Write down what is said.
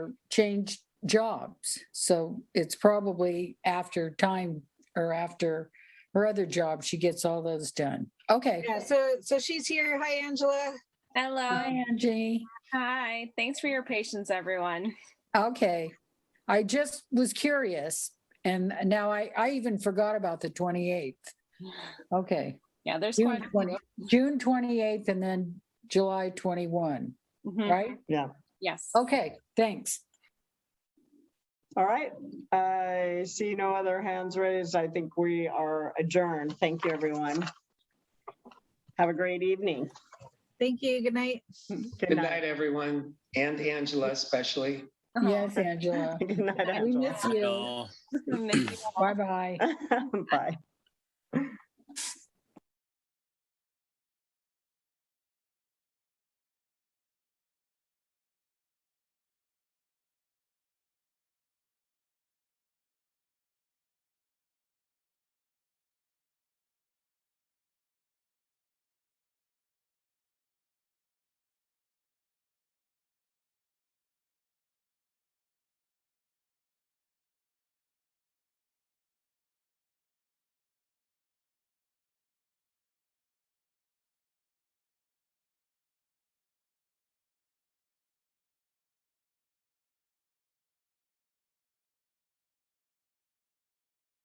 changed jobs. So it's probably after time or after her other job, she gets all those done. Okay. Yeah, so, so she's here. Hi, Angela. Hello. Hi, Angie. Hi. Thanks for your patience, everyone. Okay. I just was curious and now I, I even forgot about the 28th. Okay. Yeah, there's June quite. a 20 June 28th and then July 21, Mhm. right? Yes. Okay, thanks. All right, I see no other hands raised. I think we are adjourned. Thank you, everyone. Have a great evening. Thank you. Good night. Good Good night, everyone, and Angela especially. Oh, Yes, Angela. Good night, We miss Angela. you. I'm missing all- Bye-bye. Bye.